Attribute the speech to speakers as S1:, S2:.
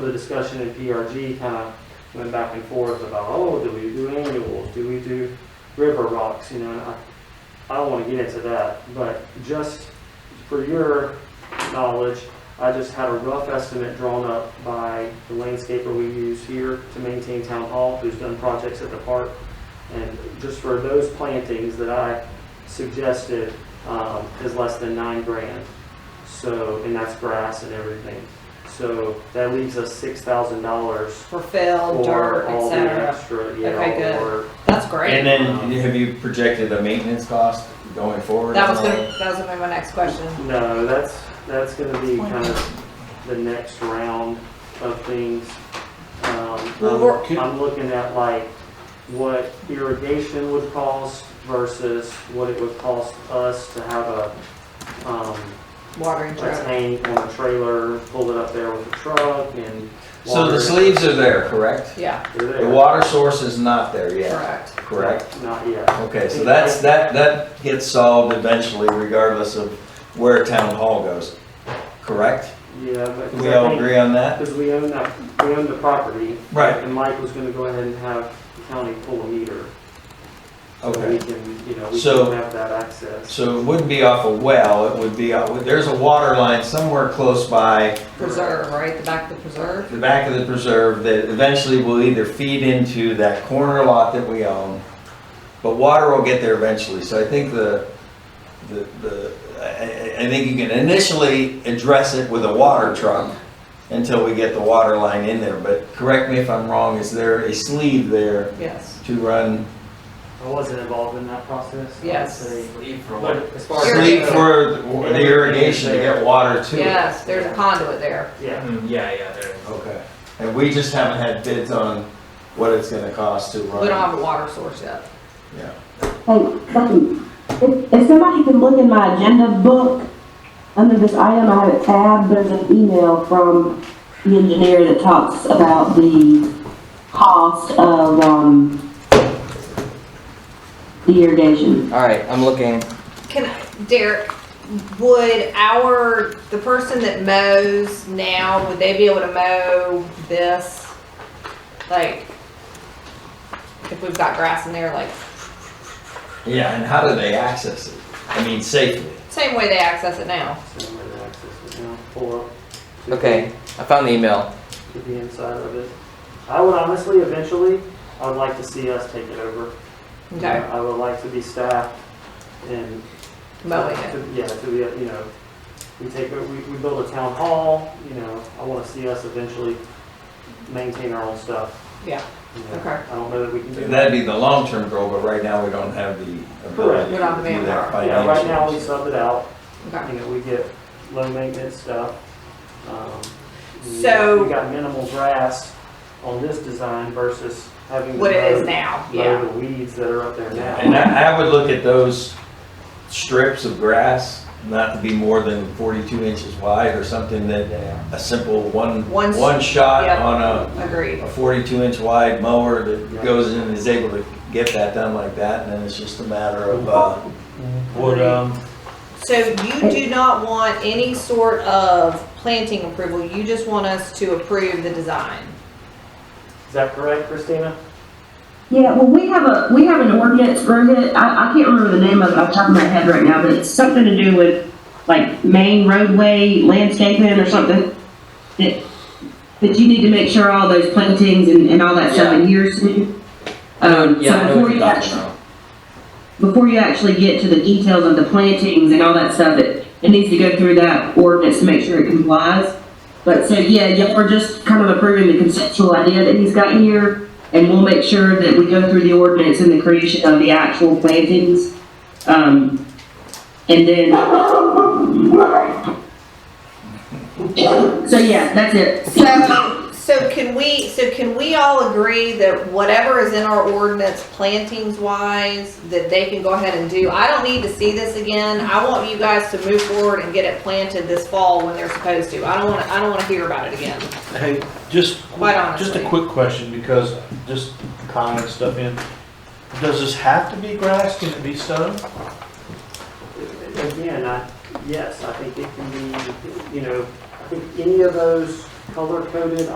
S1: the discussion in PRG kind of went back and forth about, oh, do we do annuals? Do we do river rocks? You know, and I, I don't want to get into that, but just for your knowledge, I just had a rough estimate drawn up by the landscaper we use here to maintain town hall, who's done projects at the park. And just for those plantings that I suggested, um, is less than nine grand. So, and that's grass and everything. So that leaves us six thousand dollars
S2: for
S1: for
S2: fill, dirt,
S1: all the
S2: etc.
S1: extra, yeah,
S2: Okay, good.
S1: or
S2: That's great.
S3: And then, have you projected a maintenance cost going forward?
S2: That was gonna, that was gonna be my next question.
S1: No, that's, that's gonna be kind of the next round of things. Um,
S2: Well, we're-
S1: I'm I'm looking at like what irrigation would cost versus what it would cost us to have a, um,
S2: Watering
S1: a
S2: truck.
S1: tank on a trailer, pull it up there with a truck and
S3: So
S1: water
S3: the
S1: it.
S3: sleeves are there, correct?
S2: Yeah,
S1: They're
S3: The
S1: there.
S3: water source is not there yet,
S2: correct.
S3: correct?
S1: Not yet.
S3: Okay, so that's, that, that gets solved eventually regardless of where town hall goes, correct?
S1: Yeah, but.
S3: Do we all agree on that?
S1: Because we own that, we own the property.
S3: Right.
S1: And Mike was gonna go ahead and have the county pull a meter. So we
S3: Okay,
S1: can, you know, we
S3: So-
S1: can have that access.
S3: so it wouldn't be off a well, it would be, out- there's a water line somewhere close by
S2: Preserve, right? The back of the preserve?
S3: the back of the preserve that eventually will either feed into that corner lot that we own, but water will get there eventually. So I think the, the, the, I, I- I think you can initially address it with a water truck until we get the water line in there. But correct me if I'm wrong, is there a sleeve there
S2: Yes.
S3: to run?
S1: I wasn't involved in that process. I would
S2: Yes.
S1: say.
S4: Leave for
S1: But
S4: what?
S1: as far as.
S3: Sleeve for the irrigation to get water to it?
S2: Yes, there's a conduit there.
S1: Yeah,
S4: Mm, Yeah, yeah, there is.
S3: Okay. And we just haven't had bids on what it's gonna cost to run.
S2: We don't have a water source yet.
S3: Yeah.
S5: Hey, Bucky, if, if somebody can look in my agenda book, under this item, I have a tab, there's an email from the engineer that talks about the cost of, um, the irrigation.
S6: All right, I'm looking.
S2: Can, I- Derek, would our, the person that mows now, would they be able to mow this? Like, if we've got grass in there, like,
S3: Yeah, and how do they access it? I mean, safely.
S2: same way they access it now.
S1: same way to access it now, pull up. to-
S6: Okay, I found the email.
S1: To the inside of it. I would honestly, eventually, I would like to see us take it over.
S2: Okay,
S1: I would like to be staffed and
S2: mowing it.
S1: Yeah, to be, you know, we take, we, we build a town hall, you know, I wanna see us eventually maintain our own stuff.
S2: Yeah.
S1: You know,
S2: Okay.
S1: I don't know that we can do that.
S3: That'd be the long-term goal, but right now we don't have the
S1: Correct.
S2: We
S3: ability to
S2: don't have the
S3: do that
S2: manpower.
S1: Yeah, right now we
S3: financially.
S1: sub it out,
S2: Okay.
S1: you know, we get low maintenance stuff. Um, we-
S2: So-
S1: We got minimal grass on this design versus having. to
S2: What it is
S1: mow-
S2: now,
S1: Mow
S2: yeah.
S1: the weeds that are up there now.
S3: And I, I would look at those strips of grass, not to be more than forty-two inches wide or something that,
S1: Yeah.
S3: a simple one,
S2: One s-
S3: one shot
S2: yeah.
S3: on a,
S2: Agreed.
S3: a forty-two inch wide mower
S1: Yeah.
S3: that goes in and is able to get that done like that, and then it's just a matter of, uh, what, um,
S2: So you do not want any sort of planting approval, you just want us to approve the design?
S1: Is that correct, Christina?
S5: Yeah, well, we have a, we have an ordinance, Rohit, I, I can't remember the name of it off the top of my head right now, but it's something to do with, like, main roadway landscaping or something. That, that you need to make sure all those plantings and, and all that stuff adheres to. Um,
S6: Yeah, I
S5: so
S6: know what
S5: before
S6: you're
S5: you
S6: talking
S5: actually,
S6: about.
S5: before you actually get to the details of the plantings and all that stuff, it, it needs to go through that ordinance to make sure it complies. But so, yeah, yeah, we're just kind of approving the conceptual idea that he's got here, and we'll make sure that we go through the ordinance and the creation of the actual plantings. Um, and then. So, yeah, that's it.
S2: So, so can we, so can we all agree that whatever is in our ordinance plantings wise, that they can go ahead and do? I don't need to see this again. I want you guys to move forward and get it planted this fall when they're supposed to. I don't wanna, I don't wanna hear about it again.
S7: Hey, just,
S2: Quite honestly.
S7: just a quick question, because just comment stuff in. Does this have to be grass? Can it be stone?
S1: Again, I, yes, I think it can be, you know, I think any of those color coded